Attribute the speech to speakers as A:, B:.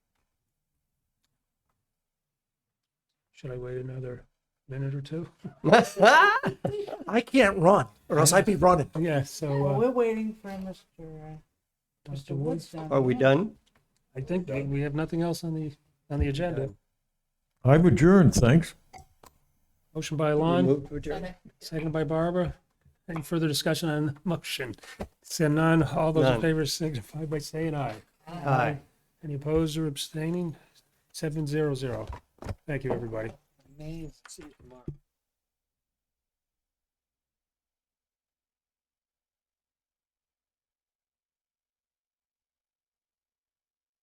A: Should I wait another minute or two?
B: I can't run, or else I'd be running.
A: Yeah, so,
C: Well,
A: uh,
C: we're waiting for Mr. uh, Mr.
A: Mr. Woods,
C: Woods.
D: Are we done?
A: I think that we have nothing else on the, on the agenda.
E: I'm adjourned, thanks.
A: Motion by
D: We
A: Lon,
D: move to adjourn?
A: second by Barbara. Any further discussion on motion? Seeing none, all those in
D: None.
A: favor signify by saying aye.
D: Aye.
A: Any opposed or abstaining? Seven zero zero. Thank you, everybody.
C: Amazing.
A: See you tomorrow.